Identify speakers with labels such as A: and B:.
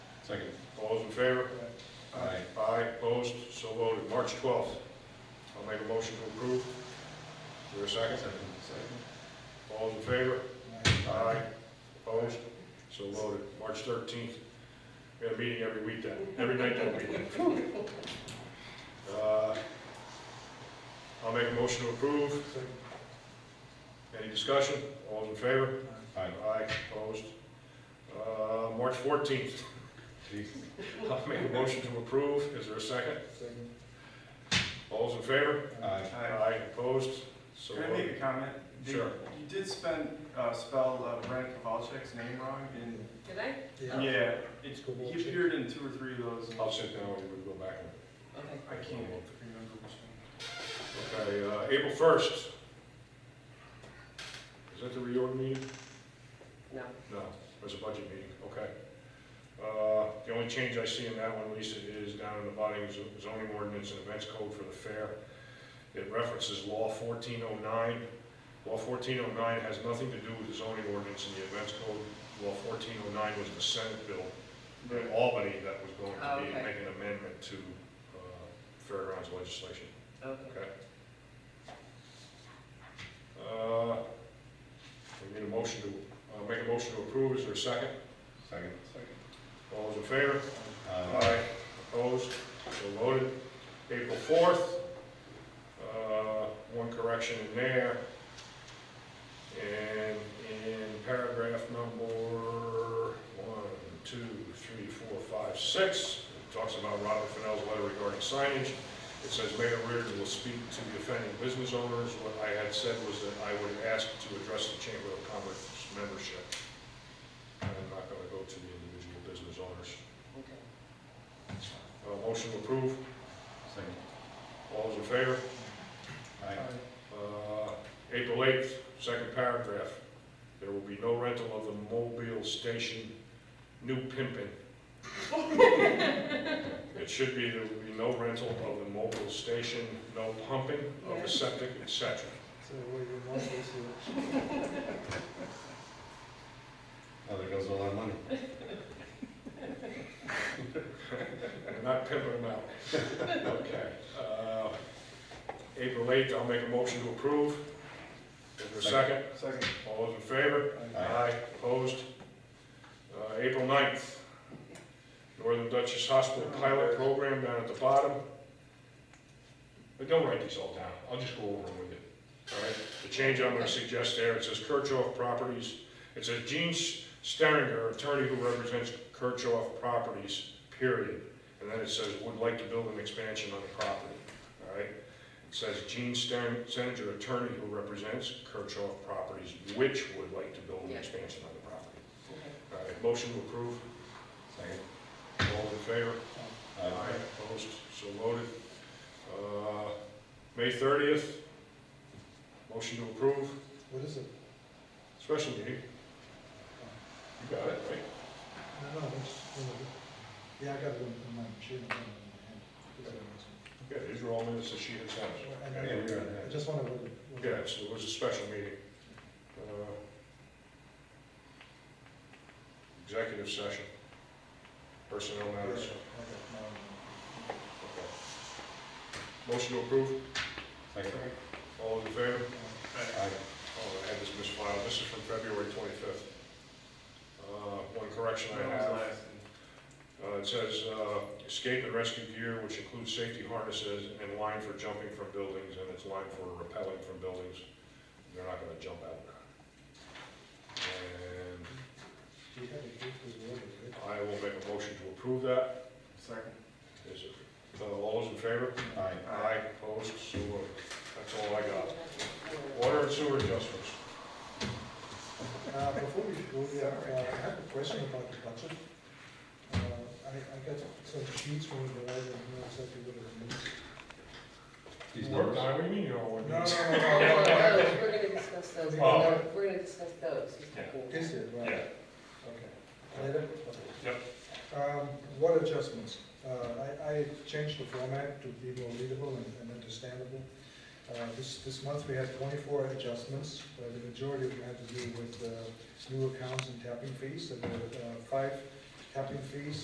A: Second. All those in favor?
B: Aye.
A: Aye, opposed, so voted. March 12th, I'll make a motion to approve. Is there a second?
B: Second.
A: All those in favor?
B: Aye.
A: Aye, opposed, so voted. March 13th, we had a meeting every weekend, every night that week. Uh, I'll make a motion to approve. Any discussion? All those in favor?
B: Aye.
A: Aye, opposed. Uh, March 14th,
B: Jesus.
A: I'll make a motion to approve. Is there a second?
B: Second.
A: All those in favor?
B: Aye.
C: Hi,
A: Aye, opposed, so
C: Can I make
A: voted.
C: a comment? The-
A: Sure.
C: You did spend, uh, spell uh, Brad Kowalczyk's name wrong in,
D: Did I?
C: yeah, it's,
B: Kowalczyk.
C: he appeared in two or three of those. and
B: Oh.
A: I'll sit down and we'll go back.
C: I can't remember which one.
A: Okay, uh, April 1st. Is that the reorg meeting?
D: No.
A: No, it was a budget meeting, okay. Uh, The only change I see in that one, Lisa, is down in the body is zoning ordinance and events code for the fair. It references law 1409. Law 1409 has nothing to do with the zoning ordinance and the events code. Law 1409 was the Senate bill in Albany that was going
D: Oh,
A: to be,
D: okay.
A: make an amendment to uh, fairgrounds legislation.
D: Okay.
A: Uh, We need a motion to, uh, make a motion to approve, is there a second?
B: Second.
A: All those in favor?
B: Aye.
A: Opposed, so voted. April fourth, uh, one correction in there. And in paragraph number one, two, three, four, five, six, it talks about Robert Fennell's letter regarding signage. It says Mayor Reardon will speak to the offending business owners. What I had said was that I would ask to address the Chamber of Commerce membership. And I'm not gonna go to the individual business owners.
D: Okay.
A: Uh, Motion to approve,
B: Second.
A: all those in favor?
B: Aye.
A: Uh, April 8th, second paragraph, there will be no rental of the mobile station, new pimping. It should be, there will be no rental of the mobile station, no pumping of
D: Yeah.
A: the septic, et cetera.
E: So what do you want this year?
B: Oh, there goes all our money.
A: We're not pimping them out. Okay. Uh, April 8th, I'll make a motion to approve. Is there a second?
C: Second.
A: All those in favor? Aye. Opposed? Uh, April 9th, Northern Dutchess Hospital Pilot Program down at the bottom. But don't write these all down, I'll just go over them with you, all right? The change I'm gonna suggest there, it says Kirchhoff Properties, it says Gene Steringer, attorney who represents Kirchhoff Properties, period. And then it says, would like to build an expansion on the property, all right? It says Gene Stern, Senator attorney who represents Kirchhoff Properties, which would like to build an
D: Yeah.
A: expansion on the property.
D: Okay.
A: All right, motion to approve,
B: Second.
A: all in favor?
B: Aye.
A: Opposed, so voted. Uh, May thirtieth, motion to approve,
E: What is it?
A: special meeting. You got it, right?
E: No, no, that's, yeah, I got it in my machine, I got it in my hand. It's on this one.
A: Yeah, these are all minutes that she had sent.
E: I
A: us.
E: know.
B: Yeah, we were on
E: I
B: that.
E: just wanted to.
A: Yeah, so it was a special meeting. Uh, Executive session, personnel
E: Yeah,
A: matters.
E: okay, now
A: Okay. Motion to approve,
B: Second.
A: all in favor?
E: I'm- uh,
B: Aye.
A: Oh, I had this misfiled, this is from February 25th. Uh, One correction
C: That
A: I
C: was
A: have,
C: last.
A: uh, it says uh, escape and rescue gear, which includes safety harnesses and line for jumping from buildings, and it's line for rappelling from buildings. They're not gonna jump out. And
E: Do you have it? It's the order, right?
A: I will make a motion to approve that.
C: Second.
A: Is it, uh, all those in favor?
B: Aye.
A: Aye, opposed, so voted. That's all I got.
D: Alright.
A: Water and sewer adjustments.
E: Uh, Before we go there, uh, I have a question about the budget. Uh, I, I got some sheets from the lawyer, and know exactly what it means.
B: These
A: Work
B: numbers.
A: time, what do you mean you don't want
E: No,
A: these?
E: no,
D: Oh,
E: no,
D: no,
E: no, no,
D: those, We're gonna discuss those,
A: Oh.
D: we're gonna discuss those. he's
A: Yeah.
E: no.
D: talking.
E: Is it, right?
A: Yeah.
E: Okay. Later?
A: Yep.
E: Um, What adjustments? Uh, I, I changed the format to be more readable and and understandable. Uh, This, this month, we had twenty-four adjustments, but the majority of them had to do with uh, new accounts and tapping fees. There were uh, five tapping fees